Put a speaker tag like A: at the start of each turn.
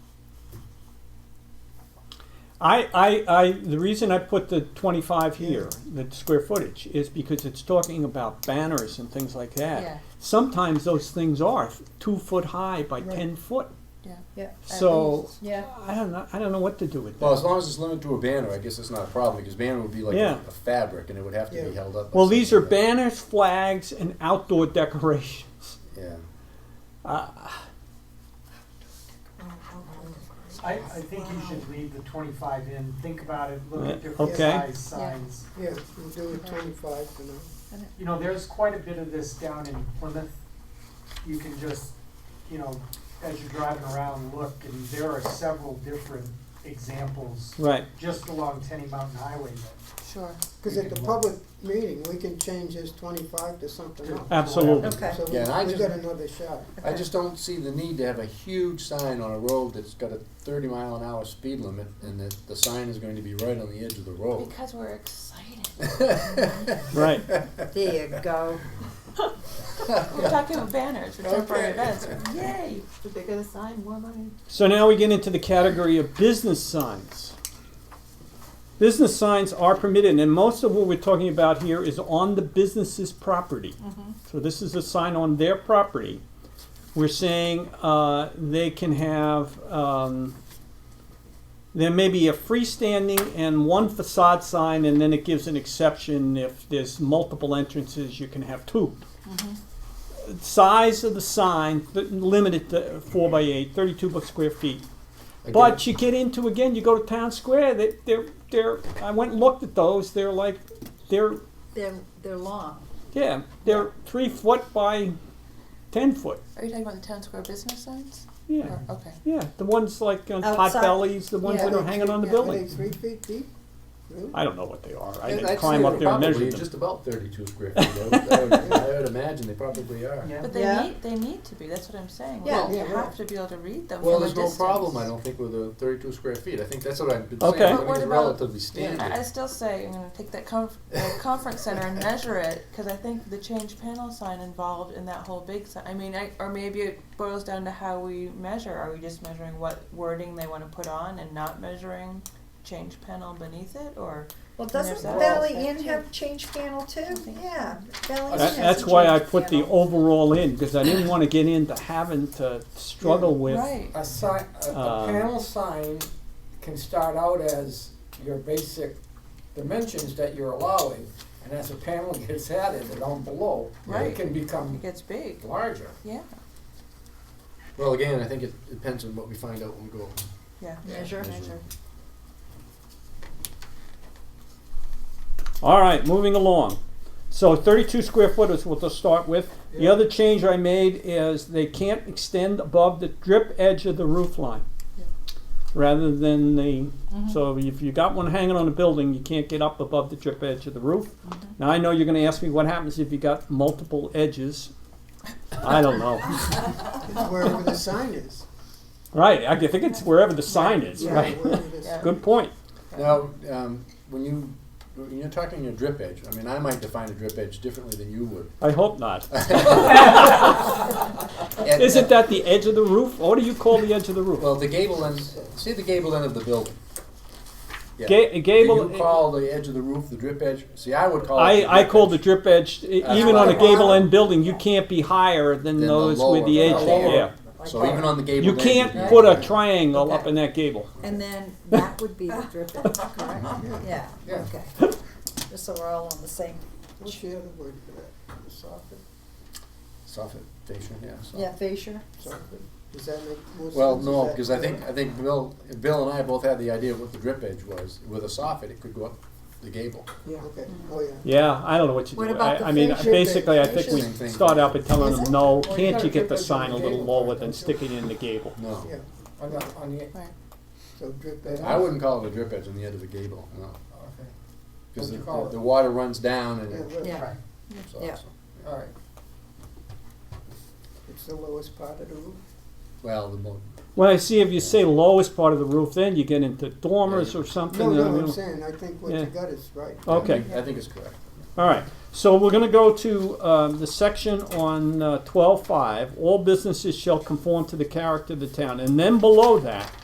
A: I, I, I, the reason I put the twenty-five here, the square footage, is because it's talking about banners and things like
B: Yeah.
A: that. Sometimes those things are two foot high by
C: Right.
A: ten foot,
B: yeah.
C: Yeah,
A: so,
C: yeah.
A: I don't know, I don't know what to do with
D: Well, as
A: that.
D: long as it's limited to a banner, I guess it's not a problem, because banner would be like
A: Yeah.
D: a a fabric, and it would have to be
C: Yeah.
D: held up. by
A: Well, these are
D: something, but-
A: banners, flags, and outdoor decorations.
D: Yeah.
E: Oh,
F: I, I think you should leave the twenty-five in, think about it, look
A: Yeah,
F: at different
A: okay.
F: size
B: Yeah.
F: signs.
C: Yeah, we'll do it twenty-five for now.
F: You know, there's quite a bit of this down in Plymouth. You can just, you know, as you're driving around, look, and there are several different examples
A: Right,
F: just along Tenny Mountain Highway that
B: Sure.
C: Cause at the public meeting, we can change this twenty-five to something else.
A: absolutely.
B: Okay.
C: So we,
D: Yeah, and I
C: we
D: just-
C: got another shot.
D: I just don't see the need to have a huge sign on a road that's got a thirty mile an hour speed limit, and that the sign is going to be right on the edge of the road.
B: Because we're excited.
A: Right.
E: There you go.
B: We're talking about banners for
D: Okay.
B: temporary events. Yay! The bigger the sign, more money.
A: So now we get into the category of business signs. Business signs are permitted, and most of what we're talking about here is on the business's property. So this is a sign on their property. We're saying uh, they can have, um, there may be a freestanding and one facade sign, and then it gives an exception if there's multiple entrances, you can have two size of the sign, th- limited to four by eight, thirty-two bu- square feet. But you get into, again, you go to town square, they, they're, they're, I went and looked at those, they're like, they're,
E: They're, they're long.
A: yeah, they're three foot by ten foot,
B: Are you talking about the town square business signs?
A: yeah.
B: Or- Okay.
A: Yeah, the ones like on pot
E: Outside.
A: bellies, the ones that
C: Are
A: are
C: they
A: hanging on the
C: three- Are
A: building.
C: they three feet deep? Really?
A: I don't know what they are, I
D: I'd
A: didn't
D: say
A: climb up
D: they're
A: there and measure
D: probably
A: them.
D: Just about thirty-two square feet. I would, I would, I would imagine they probably are.
F: Yeah.
B: But they
E: Yeah.
B: need they need to be. That's what I'm saying.
E: Yeah.
B: we
C: Yeah,
B: have
C: right.
B: to be able to read them.
D: Well,
B: from a
D: there's no
B: distance.
D: problem, I don't think, with the thirty-two square feet. I think that's what I've been
A: Okay.
D: saying,
B: But what
D: something's
B: about-
D: relatively standard.
B: I, I still say I'm going to take that conf- the conference center and measure it because I think the change panel sign involved in that whole big sign. I mean, I, or maybe it boils down to how we measure. Are we just measuring what wording they want to put on and not measuring change panel beneath it, or
E: Well,
B: doesn't
E: doesn't
B: There's that.
E: Valley
B: Well,
E: Inn have change panel too? Yeah, Valley Inn
A: That-
E: has a
A: That's why I
E: change
A: put the
E: panel.
A: overall in, because I didn't wanna get into having to struggle with,
B: right?
G: A sign, a, a
A: Um,
G: panel sign can start out as your basic dimensions that you're allowing, and as a panel gets added and on below,
B: Right.
G: it can become
B: It gets big.
G: larger.
B: Yeah.
D: Well, again, I think it depends on what we find out when we go.
B: Yeah.
E: Measure.
B: Measure.
A: All right, moving along. So thirty-two square foot is what they'll start with. The
G: Yeah.
A: other change I made is they can't extend above the drip edge of the roof line.
B: Yeah.
A: Rather than the, so if you got one hanging on a building, you can't get up above the drip edge of the roof. Now, I know you're gonna ask me what happens if you got multiple edges. I don't know.
C: It's wherever the sign is.
A: Right, I think it's wherever the sign is,
C: Yeah,
A: right?
C: wherever the
B: Yeah.
A: Good point.
D: Now, um, when you, when you're talking your drip edge, I mean, I might define a drip edge differently than you would.
A: I hope not.
D: And- uh,
A: Isn't that the edge of the roof? What do you call the edge of the roof?
D: Well, the gable end, see the gable end of the building? Yeah.
A: Ga-
D: Do
A: gable. e-,
D: you call the edge of the roof the drip edge? See, I would call it. the
A: I, I
D: drip
A: call
D: edge.
A: the drip edge, e- even on a gable end building, you can't be higher than
D: Than the
A: those with the
D: lower-
A: edge,
D: the lower.
A: yeah.
D: So even on the gable.
A: You
D: end,
A: can't
D: you'd
A: put a
D: be-
A: triangle up
E: Okay.
A: in that gable.
E: And then that would be the drip edge, correct? Yeah,
D: Yeah.
E: okay. Just so we're all on the same,
C: What's the other word for that? The soffit,
D: Soffit, fascia, yeah. soffit.
E: yeah, fascia.
C: soffit? Does that make more sense?
D: Well,
C: Is
D: no,
C: that
D: because I think,
C: correct?
D: I think Bill, Bill and I both had the idea of what the drip edge was. With a soffit, it could go up the gable.
C: Yeah, okay, oh, yeah.
A: Yeah, I don't know what you
E: What
A: do.
E: about
A: I,
E: the
A: I mean,
E: fascia
A: basically, I
D: thing?
A: think
D: Fascia
A: we
D: thing.
A: start out by telling
E: Is
A: them,
E: it?
A: no,
G: Well, you
A: can't you
G: gotta
A: get
G: drip
A: the
G: edge on
A: sign a
G: the
A: little
G: gable,
A: lower
G: right,
A: than
G: don't you?
A: sticking in the gable?
D: No.
C: Yeah,
G: On the, on the,
B: Right.
C: so drip that
D: I wouldn't call it a drip edge on the end of a gable, no.
G: okay,
D: Because
G: What'd
D: the,
G: you call
D: the,
G: it?
D: the water runs down and it.
C: Yeah, right.
E: Yeah.
G: right,
D: so-
E: Yeah.
D: so-
G: all right.
C: It's the lowest part of the roof.
D: Well, the mo-
A: Well, I see if you say lowest part of the roof, then you get into dormers or something.
C: No,
A: I
C: no,
A: don't
C: I'm
A: know.
C: saying, I think what
A: Yeah.
C: you got is right.
A: Okay.
D: I think- I think it's correct.
A: All right, so we're gonna go to, um, the section on, uh, twelve-five, all businesses shall conform to the character of the town, and then below that,